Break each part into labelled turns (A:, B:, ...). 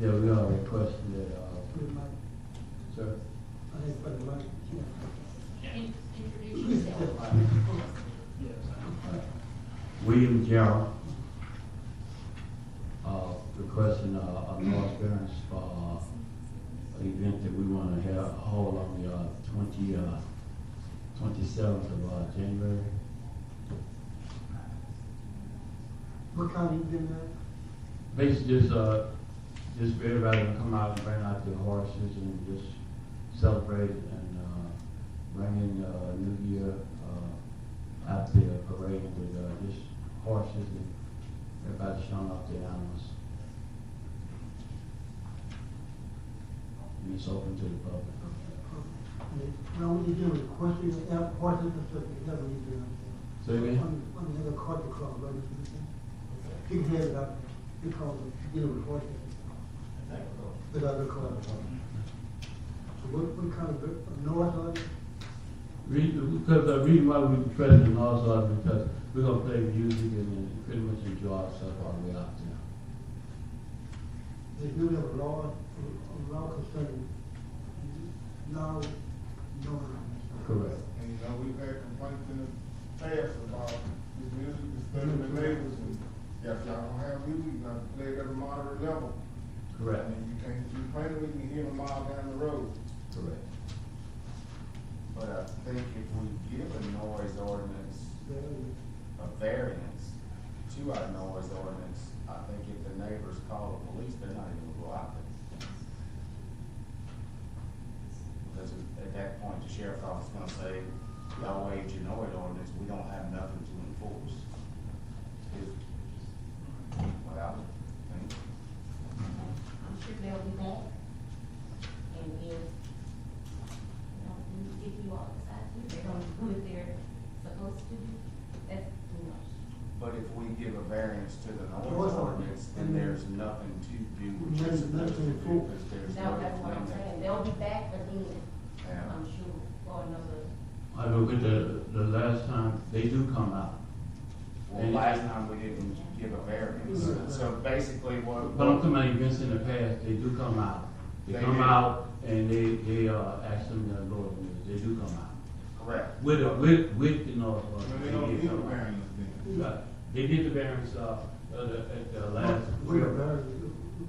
A: Yeah, we all requested it, uh,
B: Put a mic,
A: sir.
B: I think put a mic, yeah.
C: In- Introduce yourself.
A: William Jarrell, uh, requesting a, a noise variance for uh, an event that we want to have, hold on the, uh, twenty, uh, twenty-seventh of, uh, January.
B: What kind of event that?
A: Basically, just, uh, just for everybody to come out and bring out their horses and just celebrate and, uh, bring in, uh, New Year, uh, out there parading with, uh, just horses and everybody showing off their animals. And it's open to the public.
B: Now, when you do it, question, ask questions, and stuff, you never need to. do that.
A: Say again?
B: On, on the other card, you call, right? You can have it out, you call, them, you get a report. The other card. So what, what kind of, a noise are they?
A: Reason, because the reason why we present and also is because we're gonna play music and uh, pretty much enjoy ourselves all the way out there.
B: They do have a law, a law concerning loud noise.
A: Correct.
D: And, you know, we've had complaints in the past about this music disturbing the neighbors, and if y'all don't have music, you gotta play it at a moderate level.
A: Correct.
D: And you can't keep playing it, you can hear it a mile down the road.
A: Correct.
E: But I think if we give a noise ordinance, a variance to our noise ordinance, I think if the neighbors call the police, they're not even gonna go out there. Because at that point, the sheriff's office is gonna say, y'all waived your noise ordinance, we don't have nothing to enforce. Is what I would think.
C: I'm sure they'll be back. And if, you know, we- if you all decide to, they're gonna do what they're supposed to do. That's too much.
E: But if we give a variance to the
B: Noise
E: noise
B: ordinance.
E: ordinance, then there's nothing to do what you're
B: Nothing-
E: supposed to
B: nothing
E: do,
B: to enforce.
E: because there's no.
C: Now, that's what I'm saying. They'll be back again,
E: Yeah.
C: I'm sure, for another.
A: I look at the, the last time, they do come out.
E: Well, last time we didn't give a
B: Mhm.
E: variance, so basically what.
A: But I'm talking about events in the past, they do come out. They
E: They
A: come
E: do.
A: out and they, they, uh, ask them to go, they do come out.
E: Correct.
A: With, a- with, with, you know, uh,
D: But
A: they
D: they don't
A: did
D: need a
A: come out.
D: variance then.
A: Right. They did the variance, uh, uh, the- at the last.
B: We're very,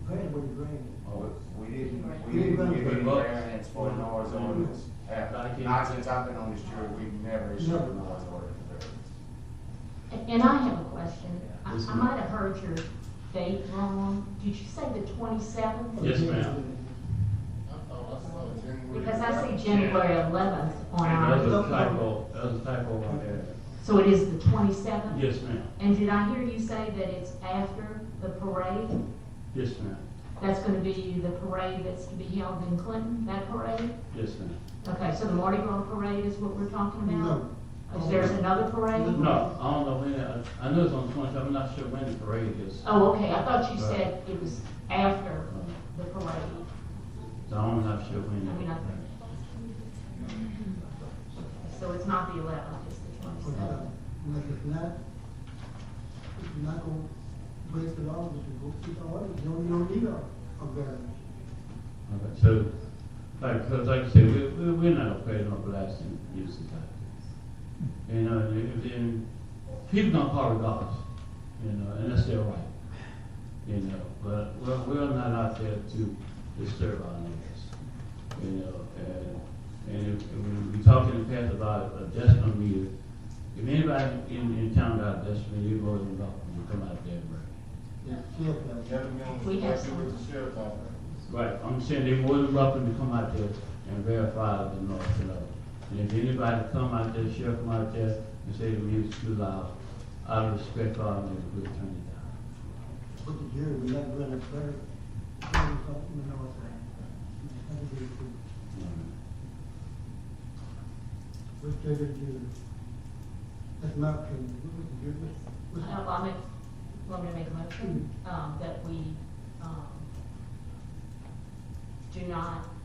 B: paying what you're bringing.
A: Oh,
E: We- We didn't, we
B: You
E: didn't
B: remember
E: give any
A: the book?
E: variance for noise ordinance.
A: I
E: Uh,
A: can't-
E: Not since I've been on this jury, we've never issued
B: Never.
E: a noise ordinance variance.
C: And and I have a question. I
A: Yes,
C: I
A: ma'am.
C: might have heard your date wrong. Did you say the twenty-seventh?
A: Yes, ma'am.
D: I thought I saw January.
C: Because I see January eleventh on
A: And
C: our,
A: there's a typo, there's a typo on there.
C: so it is the twenty-seventh?
A: Yes, ma'am.
C: And did I hear you say that it's after the parade?
A: Yes, ma'am.
C: That's gonna be the parade that's to be held in Clinton, that parade?
A: Yes, ma'am.
C: Okay, so the Mardi Gras parade is what we're talking about?
B: No.
C: Is there's another parade?
A: No, I don't know when, I, I know it's on twenty, I'm not sure when the parade is.
C: Oh, okay, I thought you said it was after the parade.
A: So I'm not sure when.
C: I mean, I- So it's not the eleventh, it's the twenty-seventh.
B: Unless it's not, if you're not gonna break the law, you can go keep our orders, you don't, you don't need a, a variance.
A: Okay, So, like, because like I said, we, we, we're not afraid of blasting music like this. You know, and, if- and people don't call it gods, you know, and that's their right. You know, but we're, we're not out there to disturb our neighbors. You know, and, and if, and when we talked in the past about a decimal meter, if anybody in, in town got a decimal meter, you go and talk, and come out there and bring it.
B: Yeah. Yeah, that's-
D: That'll be on the,
C: We have
D: that's
C: some.
D: with the sheriff's office.
A: Right, I'm saying they more than welcome to come out there and verify the noise level. And if anybody come out there, sheriff come out there and say the music's too loud, out of respect, all neighbors will turn it down.
B: But the jury, we're not running a fair, you know, it's a- it's a good thing.
A: you know.
B: What's the other jury? That's my opinion, what was the jury, what's,
C: Uh,
B: what's?
C: I'll make, want me to make a motion, um, that we, um, do not